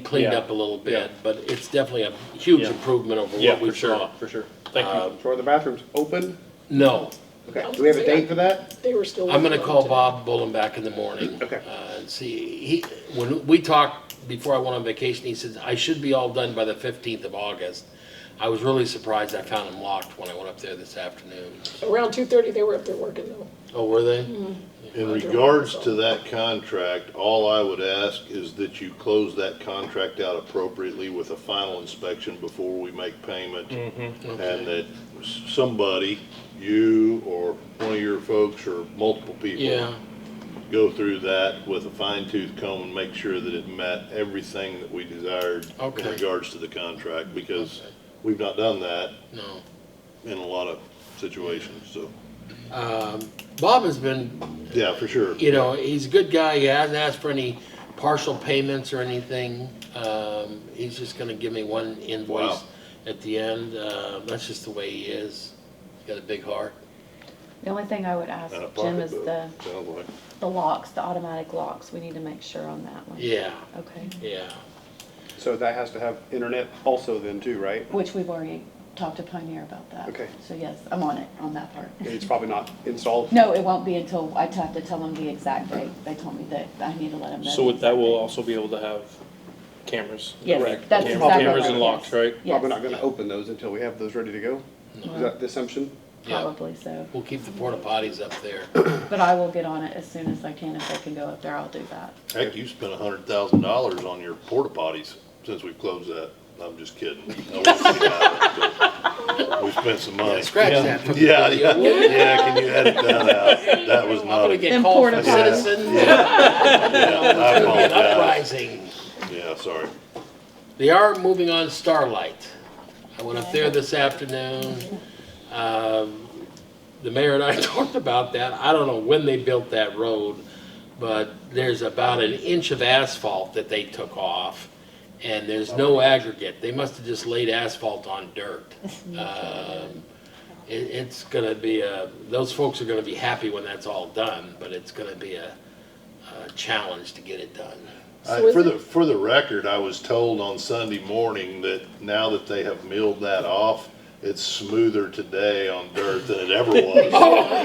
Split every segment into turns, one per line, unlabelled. cleaned
Yeah.
up a little
Yeah.
bit, but it's definitely a huge
Yeah.
improvement over
Yeah,
what we
for sure,
saw.
for sure. Thank you.
So are the bathrooms open?
No,
Okay,
Oh,
do we have a date for that?
They were still.
I'm gonna
working on
call
it.
Bob Bullen back in the morning.
Okay.
Uh, and see, he, when we talked before I went on vacation, he said, I should be all done by the fifteenth of August. I was really surprised I found them locked when I went up there this afternoon.
Around two thirty, they were up there working though.
Oh, were they?
In regards to that contract, all I would ask is that you close that contract out appropriately with a final inspection before we make payment.
Mm-hmm,
And that s- somebody, you or one of your folks or multiple people.
Yeah,
Go through that with a fine tooth comb and make sure that it met everything that we desired.
Okay.
In regards to the contract, because
Okay.
we've not done that
no.
in a lot of situations, so,
Bob has been
yeah, for sure.
you know, he's a good guy. He hasn't asked for any partial payments or anything. Um, he's just gonna give me one invoice
Wow.
at the end. Uh, that's just the way he is. He's got a big heart.
The only thing I would ask,
And a
Jim, is the,
pocketbook, Sounds like.
the locks, the automatic locks, we need to make sure on that one.
Yeah,
Okay,
yeah.
So that has to have internet also then too, right?
which we've already talked to Pioneer about that.
Okay.
So yes, I'm on it, on that part.
It's probably not installed.
No, it won't be until, I have to tell them the exact date, they told me that I need to let them know.
So
the
with that,
exact
we'll
date.
also be able to have cameras,
Yes,
correct?
that's
Cam-
exactly
Cameras
right,
and locks,
yes.
right?
Probably not
Yes,
gonna open those until we have those ready to go. Is that the assumption?
Yeah.
probably so,
We'll keep the porta potties up there.
but I will get on it as soon as I can, if they can go up there, I'll do that.
Heck, you spent a hundred thousand dollars on your porta potties since we closed that. I'm just kidding. I won't say that, but We spent some money.
Scratch that from the
Yeah, yeah,
video.
yeah, can you edit that out? That was
I'm
not,
gonna
a-
get
Them
called
porta
from
potties.
citizens.
yeah, I
It's gonna be an
apologize.
uprising.
Yeah, sorry.
They are moving on Starlight. I went up there this afternoon. Um, The mayor and I talked about that. I don't know when they built that road, but there's about an inch of asphalt that they took off, and there's no aggregate. They must have just laid asphalt on dirt. Um, It, it's gonna be a, those folks are gonna be happy when that's all done, but it's gonna be a, a challenge to get it done.
So
I-
is
For the,
it-
for the record, I was told on Sunday morning that now that they have milled that off, it's smoother today on dirt than it ever was.
Oh,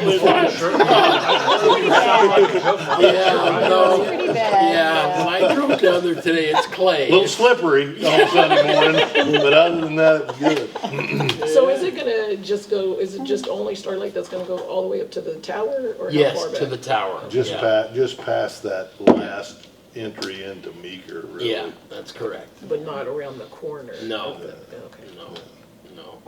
Yeah, no.
Pretty bad.
Yeah, when I drove down there today, it's
A little
clay.
slippery on Sunday morning, but other than that, it was good.
So is it gonna just go, is it just only Starlight that's gonna go all the way up to the tower or how
Yes,
far
to the
back?
tower.
Just
yeah.
pa, just past that last entry into Meeker, really.
Yeah, that's correct.
But not around the corner?
No.
of the- Okay.
No, no.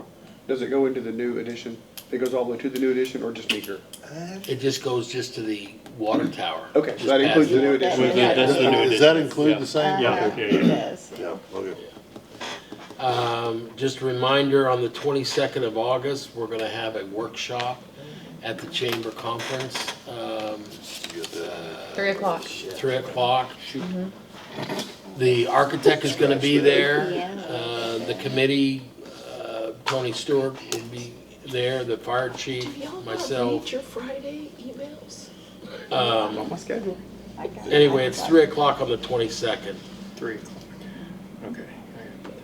Does it go into the new edition? It goes all the way to the new edition or just meeker?
It just goes just to the water tower.
Okay, so
Just
that
past
includes the new
water-
edition.
Yeah.
That's the new
Does that
addition,
include
yeah.
the same?
Uh-huh.
Okay.
It is.
Yeah, okay.
Um, just a reminder, on the twenty-second of August, we're gonna have a workshop at the Chamber Conference, um,
You got that.
Three o'clock.
three o'clock. The architect is gonna be there. Uh, the committee, uh, Tony Stewart will be there, the fire chief,
Y'all not
myself.
read your Friday emails?
Um,
On Oh, my schedule.
anyway, it's three o'clock on the twenty-second.
Three. Okay.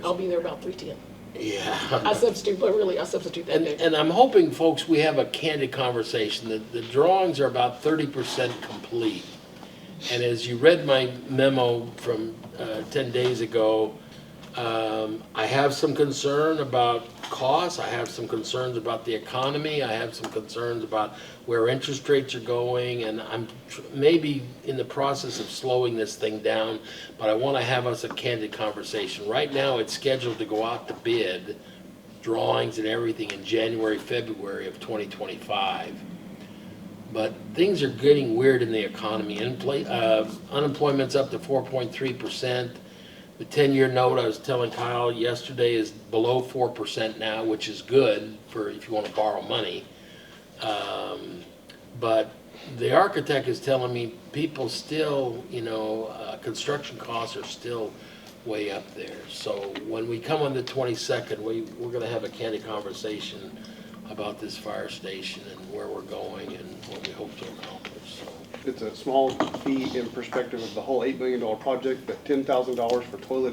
I'll be there about three ten.
Yeah.
I substitute, but really, I substitute that
And,
day.
and I'm hoping, folks, we have a candid conversation, that the drawings are about thirty percent complete. And as you read my memo from, uh, ten days ago, um, I have some concern about costs, I have some concerns about the economy, I have some concerns about where interest rates are going, and I'm tr- maybe in the process of slowing this thing down, but I wanna have us a candid conversation. Right now, it's scheduled to go out to bid, drawings and everything in January, February of 2025. But things are getting weird in the economy. Infl- uh, Unemployment's up to 4.3%. The 10-year note, I was telling Kyle yesterday, is below 4% now, which is good for if you want to borrow money. Um, But the architect is telling me people still, you know, uh, construction costs are still way up there. So when we come on the 22nd, we, we're going to have a candid conversation about this fire station and where we're going and what we hope to accomplish, so.
It's a small fee in perspective of the whole eight million dollar project, but ten thousand dollars for toilet